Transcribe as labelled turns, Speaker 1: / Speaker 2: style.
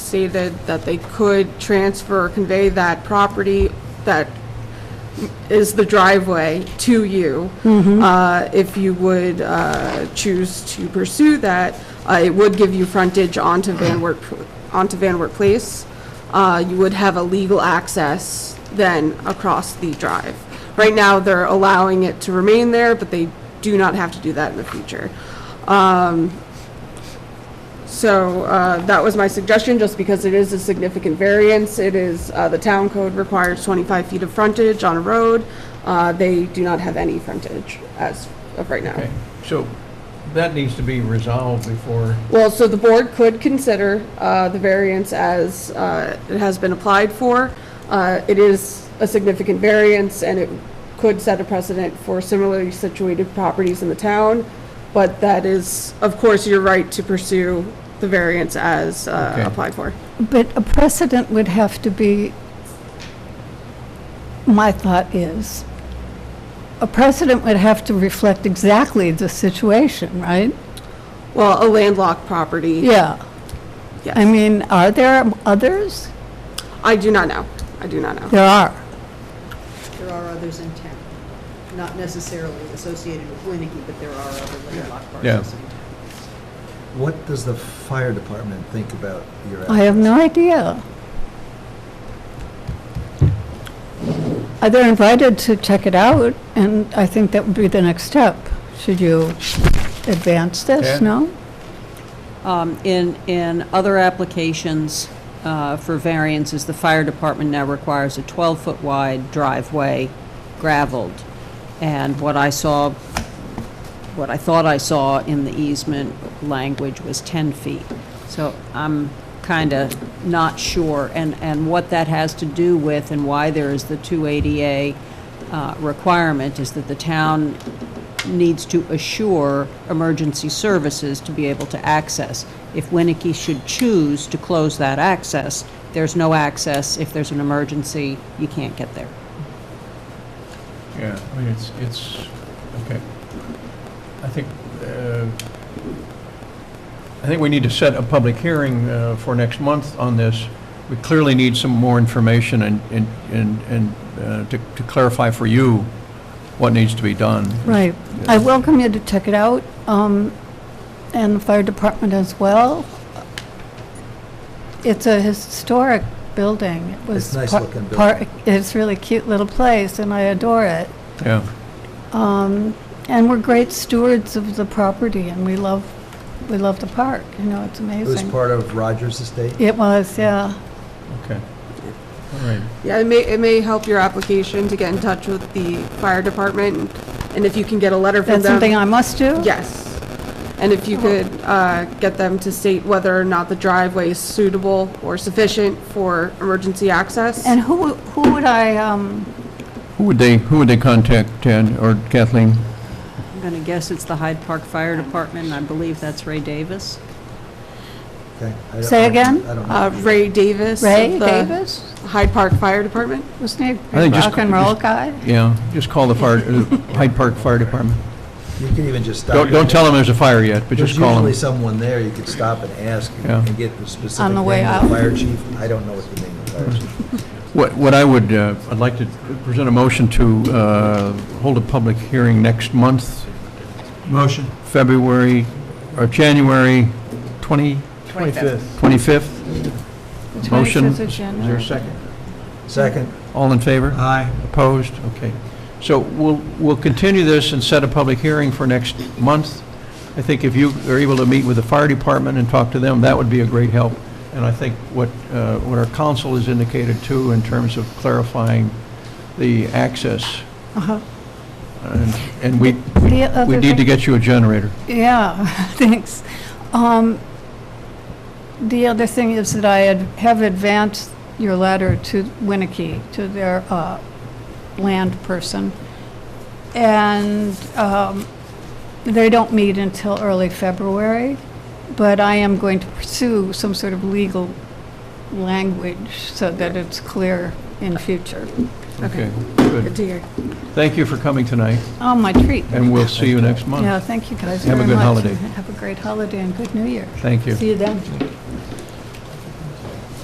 Speaker 1: stated that they could transfer or convey that property that is the driveway to you. Uh, If you would uh, choose to pursue that, uh, it would give you frontage onto Van Wert, onto Van Wert Place. Uh, You would have a legal access then across the drive. Right now, they're allowing it to remain there, but they do not have to do that in the future. So uh, that was my suggestion, just because it is a significant variance. It is, uh, the town code requires 25 feet of frontage on a road. Uh, They do not have any frontage as of right now.
Speaker 2: Okay, so that needs to be resolved before,
Speaker 1: Well, so the board could consider uh, the variance as uh, it has been applied for. Uh, It is a significant variance, and it could set a precedent for similarly situated properties in the town, but that is, of course, your right to pursue the variance as uh,
Speaker 2: Okay.
Speaker 1: applied for.
Speaker 3: But a precedent would have to be, my thought is, a precedent would have to reflect exactly the situation, right?
Speaker 1: Well, a landlocked property,
Speaker 3: Yeah. I
Speaker 1: yes.
Speaker 3: mean, are there others?
Speaker 1: I do not know. I do not know.
Speaker 3: There are.
Speaker 4: There are others in town, not necessarily associated with Winnicke, but there are other landlocked
Speaker 2: Yeah.
Speaker 4: parcels in town.
Speaker 5: What does the fire department think about your?
Speaker 3: I have no idea. Uh, They're invited to check it out, and I think that would be the next step. Should you advance
Speaker 2: Yeah.
Speaker 3: this, no?
Speaker 6: Um, In, in other applications uh, for variances, the fire department now requires a 12-foot wide driveway gravelled. And what I saw, what I thought I saw in the easement language was 10 feet. So I'm kind of not sure, and, and what that has to do with and why there is the 280A uh, requirement is that the town needs to assure emergency services to be able to access. If Winnicke should choose to close that access, there's no access. If there's an emergency, you can't get there.
Speaker 2: yeah, I mean, it's, it's, okay. I think, uh, I think we need to set a public hearing uh, for next month on this. We clearly need some more information and, and, and and uh, to to clarify for you what needs to be done.
Speaker 3: Right. I welcome you to check it out, um, and the fire department as well. It's a historic building. It was
Speaker 5: It's nice
Speaker 3: par-
Speaker 5: looking
Speaker 3: par-
Speaker 5: building.
Speaker 3: It's really cute little place, and I adore it.
Speaker 2: Yeah,
Speaker 3: Um, And we're great stewards of the property, and we love, we love the park, you know, it's
Speaker 5: It was
Speaker 3: amazing.
Speaker 5: part of Rogers Estate?
Speaker 3: It was, yeah.
Speaker 2: okay. All right,
Speaker 1: Yeah, it may, it may help your application to get in touch with the fire department, and if you can get a letter from
Speaker 3: That's something
Speaker 1: them.
Speaker 3: I Oh. must do?
Speaker 1: Yes. And if you could uh, get them to state whether or not the driveway is suitable or sufficient for emergency access.
Speaker 3: And who, who would I, um,
Speaker 2: who would they, who would they contact, Ted or Kathleen?
Speaker 6: I'm going to guess it's the Hyde Park Fire Department, and I believe that's Ray Davis.
Speaker 5: Okay. I don't-
Speaker 3: Say again?
Speaker 5: I don't know.
Speaker 1: Uh, Ray Davis. of
Speaker 3: Ray
Speaker 1: the
Speaker 3: Davis?
Speaker 1: Hyde Park Fire Department.
Speaker 3: Wasn't he
Speaker 2: I
Speaker 3: a
Speaker 2: think just-
Speaker 3: rock and roll guy?
Speaker 2: Yeah, just call the fire, uh, Hyde Park Fire Department.
Speaker 5: You could even just stop.
Speaker 2: Don't, don't tell them there's a fire yet, but just call
Speaker 5: There's usually
Speaker 2: them.
Speaker 5: someone there, you could stop and ask
Speaker 2: Yeah.
Speaker 5: and get the specific
Speaker 3: On the
Speaker 5: name
Speaker 3: way
Speaker 5: of the
Speaker 3: out.
Speaker 5: fire chief. I don't know what the name of the
Speaker 2: Hmm.
Speaker 5: fire chief.
Speaker 2: What, what I would, uh, I'd like to present a motion to, uh, hold a public hearing next month,
Speaker 5: Motion.
Speaker 2: February, or January 20,
Speaker 5: 25th.
Speaker 2: 25th?
Speaker 3: The
Speaker 2: Motion.
Speaker 3: 25th of
Speaker 2: Is there
Speaker 3: January.
Speaker 2: a second?
Speaker 5: Second.
Speaker 2: All in favor?
Speaker 5: Aye.
Speaker 2: Opposed? Okay. So we'll, we'll continue this and set a public hearing for next month. I think if you are able to meet with the fire department and talk to them, that would be a great help. And I think what, uh, what our council has indicated too, in terms of clarifying the access.
Speaker 3: Uh-huh.
Speaker 2: And- And we,
Speaker 3: The other
Speaker 2: we need to
Speaker 3: thing-
Speaker 2: get you a generator.
Speaker 3: Yeah, thanks. Um, The other thing is that I had- have advanced your letter to Winnicke, to their uh, land person, and um, they don't meet until early February, but I am going to pursue some sort of legal language so that it's clear in future.
Speaker 2: Okay,
Speaker 1: Good
Speaker 2: good.
Speaker 1: to hear.
Speaker 2: Thank you for coming tonight,
Speaker 3: Oh, my treat.
Speaker 2: and we'll see you next
Speaker 3: Yeah,
Speaker 2: month.
Speaker 3: thank you guys
Speaker 2: Have a
Speaker 3: very much.
Speaker 2: good holiday.
Speaker 3: and Have a great holiday and good New Year.
Speaker 2: Thank you.
Speaker 3: See you then.